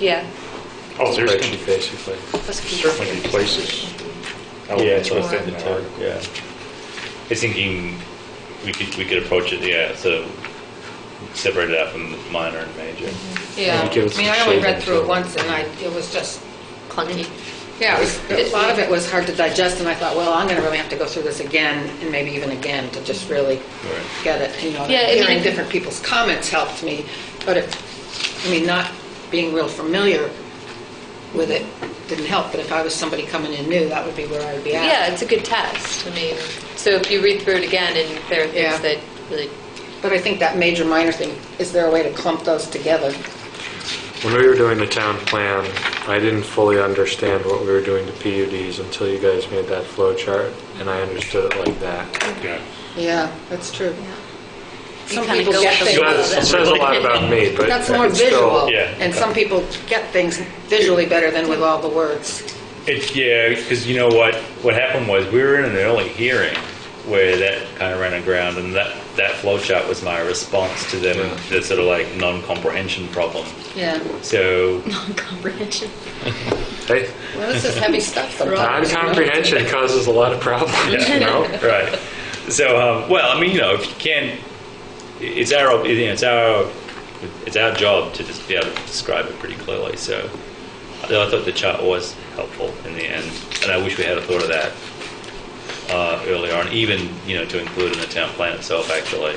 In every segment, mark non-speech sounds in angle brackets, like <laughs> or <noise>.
Yeah, Oh, there's going spreadsheet, to basically. let's keep it. certainly be places. out Yeah, it's there within the that town, are- yeah. I was thinking we could, we could approach it, yeah, so separate it out from minor and major. Yeah, Maybe give it I mean, some I only shade read and through it so- once and I, it was just, clunky. yeah, it was, a lot of it was hard to digest and I thought, well, I'm gonna really have to go through this again and maybe even again to just really Right. get it, you know, Yeah, I mean, hearing if- different people's comments helped me, but it, I mean, not being real familiar with it didn't help, but if I was somebody coming in new, that would be where I would be at. Yeah, it's a good test. I mean, so if you read through it again and there are Yeah. things that really, But I think that major, minor thing, is there a way to clump those together? When we were doing the town plan, I didn't fully understand what we were doing to PUDs until you guys made that flow chart, and I understood it like that. Yeah. Yeah, that's true. Some kinda people go get with things. the flow. It says a lot about me, <laughs> but That's more it's still- visual, yeah. and some people get things visually better than with all the words. It, yeah, because you know what, what happened was, we were in an early hearing where that kind of ran aground, and that, that flow chart was my response to them, the sort of like non-comprehension problem. Yeah. So, comprehension. Hey, Well, this is heavy stuff sometimes. Non-comprehension causes a lot of problems, you know? right. So, um, well, I mean, you know, if you can, it's our, you know, it's our, it's our job to just be able to describe it pretty clearly. So, I thought the chart was helpful in the end, and I wish we had a thought of that uh, earlier on, even you know, to include in the town plan itself, actually.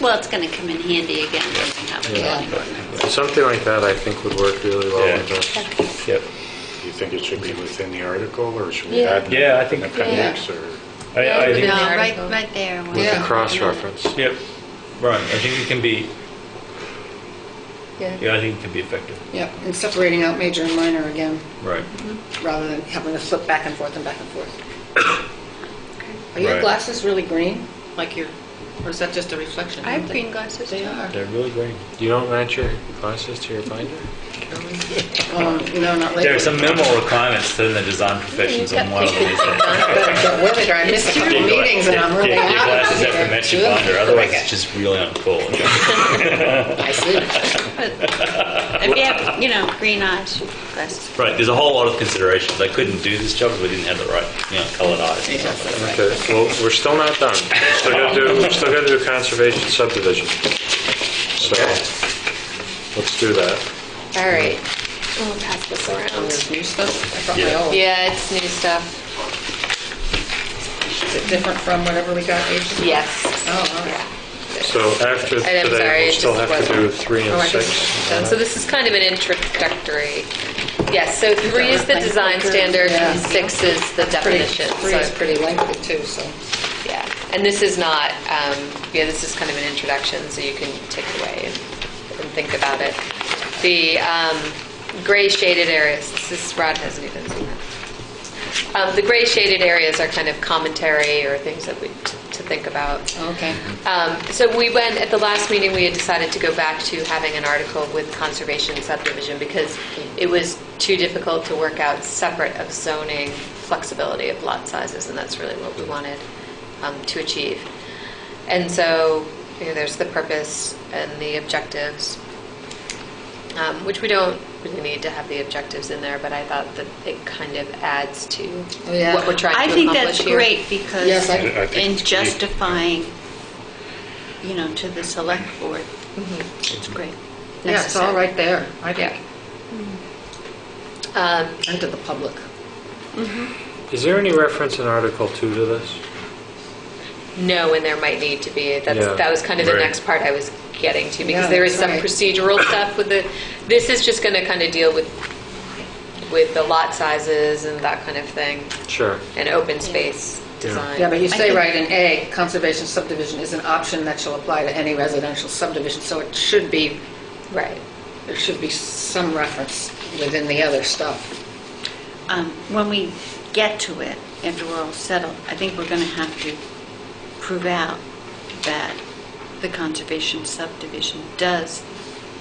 Well, it's going to come in handy again once we have a Yeah. zoning ordinance. Something like that, I think, would work really well Yeah. with us. Yep. Do you think it should be within the article, or should we Yeah. add? Yeah, I think- An appendix, or? I, I Yeah. think, No, the right, article. right there. where- With Yeah. the cross-reference. Yep. Right. I think it can be. Yeah. Yeah, I think it can be effective. Yeah, and separating out major and minor again, Right. rather than having to flip back and forth and back and forth. Are your Right. glasses really green, like your, or is that just a reflection? I have green glasses They too. are. They're really great. You don't match your glasses to your binder? Um, No, not There are lately. some minimal requirements in the design professions, and one of them is that. But but really, I missed a couple Take your- meetings and I'm take- really take out your of glasses here. out from that you wander, otherwise it's Okay. just really uncool. I see. If you have, you know, green eyes, glasses. Right, there's a whole lot of considerations. I couldn't do this job if we didn't have the right, you know, colored eyes. and stuff like Okay, well, we're still not done. Still gotta do, we've still gotta do conservation subdivision. So, let's do that. All right. We'll pass this around. There's new stuff. I brought my Yeah. old. Yeah, it's new stuff. Is it different from whatever we got ages ago? Yes. Oh, all right. Yeah. So after And I'm sorry, today, it we'll still just have to do wasn't- three Oh, and I guess six. So so this is kind of an introductory. Yes, so three is the design standard, and Yeah. six is the Pretty, definition. three So- is pretty lengthy too, so. Yeah, and this is not, um, yeah, this is kind of an introduction, so you can take it away and and think about it. The um, gray shaded areas, this is, Rod hasn't even seen that. Um, The gray shaded areas are kind of commentary or things that we, to think about. Okay. Um, So we went, at the last meeting, we had decided to go back to having an article with conservation subdivision because it was too difficult to work out separate of zoning flexibility of lot sizes, and that's really what we wanted um, to achieve. And so, you know, there's the purpose and the objectives, um, which we don't really need to have the objectives in there, but I thought that it kind of adds to Oh, yeah. what we're trying I to think accomplish that's here. great Yes, because I- I think in we- justifying, you know, to the select board, it's great. Yeah, it's all Necessary. right there, I think, Yeah. Um, and to the public. Is there any reference in Article 2 to this? No, and there might need to be. That's, Yeah. that was kind of the Right. next part I was getting to, because Yeah, there is that's some right. procedural stuff with the, this is just going to kind of deal with, with the lot sizes and that kind of thing, Sure. and open space design. Yeah, but you I say think- right in A, conservation subdivision is an option that shall apply to any residential subdivision, so it should be, Right. there should be some reference within the other stuff. Um, When we get to it, after we're all settled, I think we're going to have to prove out that the conservation subdivision does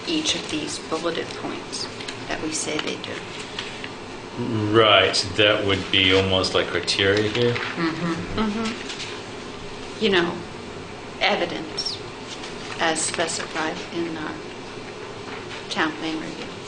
each of these bulleted points that we say they do. that. Right, that would be almost like criteria here. you know, evidence as specified in our town plan review.